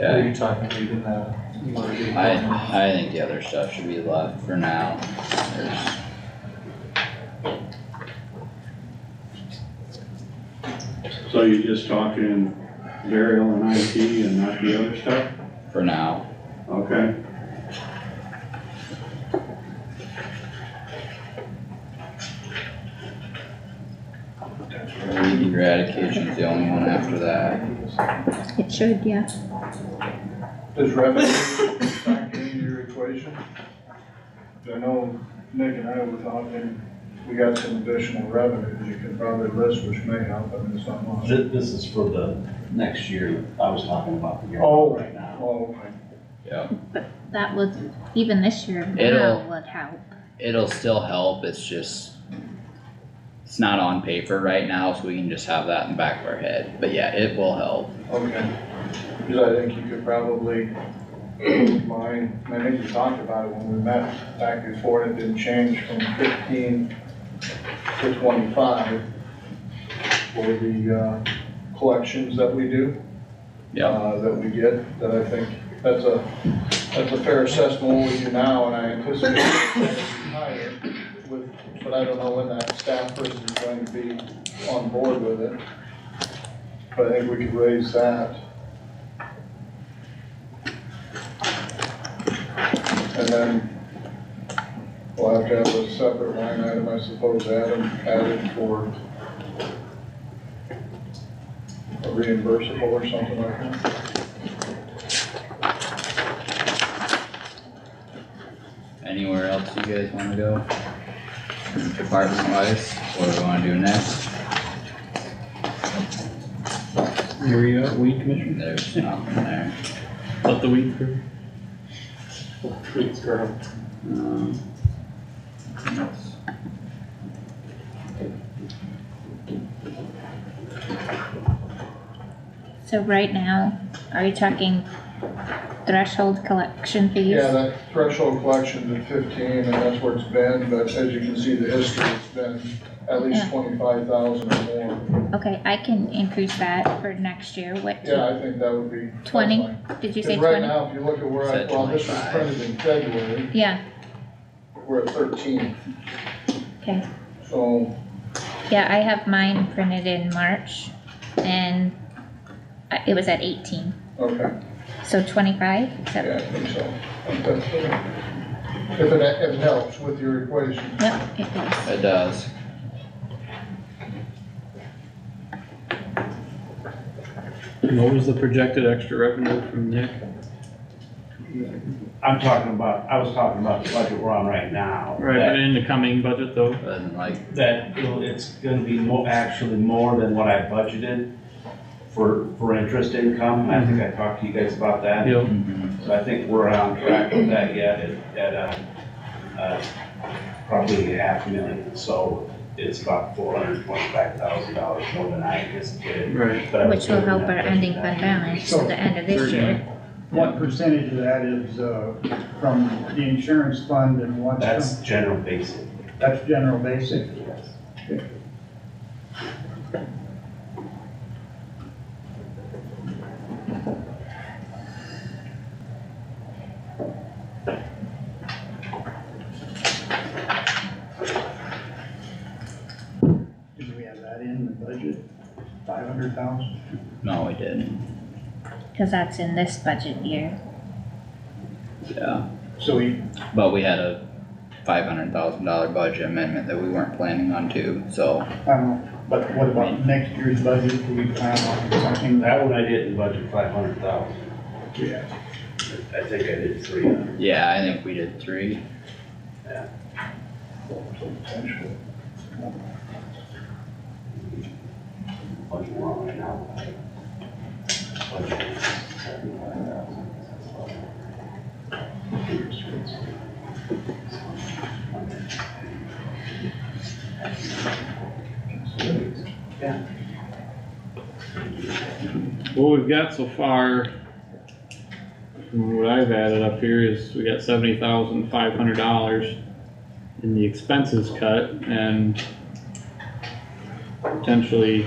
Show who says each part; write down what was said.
Speaker 1: Are
Speaker 2: Okay,
Speaker 1: you talking, reading that? You wanna read that?
Speaker 2: I, I think the other stuff should be left for now. There's-
Speaker 3: So you're just talking burial and IT and not the other stuff?
Speaker 2: For now,
Speaker 3: Okay,
Speaker 2: weed eradication's the only one after that.
Speaker 4: It should, yeah.
Speaker 5: Does revenue factor into your equation? I know Nick and I were talking, we got some additional revenues you could probably list, which may help, I mean, it's not much.
Speaker 6: This, this is for the next year, I was talking about the year
Speaker 5: Oh.
Speaker 6: right now.
Speaker 5: Oh,
Speaker 2: Yep,
Speaker 4: That was, even this year,
Speaker 2: It'll-
Speaker 4: now would help.
Speaker 2: it'll still help, it's just, it's not on paper right now, so we can just have that in the back of our head, but yeah, it will help.
Speaker 5: okay. Because I think you could probably line, and I think we talked about it when we met back before, and it didn't change from fifteen to twenty-five for the, uh, collections that we do.
Speaker 2: Yep,
Speaker 5: uh, that we get, that I think, that's a, that's a fair assessment of what we do now, and I anticipate that it'll be higher with, but I don't know when that staff person is going to be on board with it. But I think we could raise that. And then we'll have to have a separate line item, I suppose, Adam, added for a reimbursable or something like that.
Speaker 2: anywhere else you guys wanna go? Department wise, what do we wanna do next?
Speaker 1: Where you at, weed commissioner?
Speaker 2: There's nothing there.
Speaker 1: Let the weed crew. Weed girl.
Speaker 2: Um, that's-
Speaker 4: So right now, are you talking threshold collection fees?
Speaker 5: Yeah, that threshold collection to fifteen, and that's where it's been, but as you can see, the history, it's been at least
Speaker 4: Yeah.
Speaker 5: twenty-five thousand or more.
Speaker 4: Okay, I can increase that for next year, what,
Speaker 5: Yeah, I think that would be. that's
Speaker 4: 20?
Speaker 5: fine.
Speaker 4: did you say
Speaker 5: Because right
Speaker 4: twenty?
Speaker 5: now, if you look at where I,
Speaker 2: Said
Speaker 5: well, this was
Speaker 2: 25.
Speaker 5: printed in February,
Speaker 4: Yeah,
Speaker 5: we're at thirteen,
Speaker 4: okay,
Speaker 5: so,
Speaker 4: yeah, I have mine printed in March, and I- it was at eighteen,
Speaker 5: okay,
Speaker 4: so twenty-five, is that-
Speaker 5: yeah, I think so. I think that's good. If it, if it helps with your equation.
Speaker 4: yep, it does.
Speaker 2: It does.
Speaker 1: What was the projected extra revenue from Nick?
Speaker 6: I'm talking about, I was talking about the budget we're on right now.
Speaker 1: Right,
Speaker 6: that-
Speaker 1: and in the coming budget though?
Speaker 2: Wasn't like,
Speaker 6: that it'll, it's gonna be more, actually more than what I budgeted for, for interest income, I think I talked to you guys about that.
Speaker 1: Yep.
Speaker 6: So I think we're on track with that yet, at, at, uh, uh, probably a half million, so it's about four hundred twenty-five thousand dollars more than I anticipated.
Speaker 1: Right.
Speaker 6: but I was
Speaker 4: Which will
Speaker 6: given
Speaker 4: help our
Speaker 6: that
Speaker 4: ending
Speaker 6: budget.
Speaker 4: fund balance at the end of this year.
Speaker 7: What percentage of that is, uh, from the insurance fund and what's
Speaker 6: That's
Speaker 7: from,
Speaker 6: general basic,
Speaker 7: that's general basic?
Speaker 6: yes.
Speaker 7: Do we have that in the budget? Five hundred thousand?
Speaker 2: no, we didn't,
Speaker 4: Cause that's in this budget year.
Speaker 2: yeah,
Speaker 7: So we,
Speaker 2: but we had a five hundred thousand dollar budget amendment that we weren't planning on too, so.
Speaker 7: I don't know, but what about next year's budget? Do we plan on something that?
Speaker 6: That one I didn't budget five hundred thousand,
Speaker 7: Yeah.
Speaker 6: I think I did three hundred.
Speaker 2: Yeah, I think we did three,
Speaker 6: budget we're on right now. Budget is $75,000.
Speaker 1: What we've got so far, from what I've added up here is we got seventy thousand five hundred dollars in the expenses cut and potentially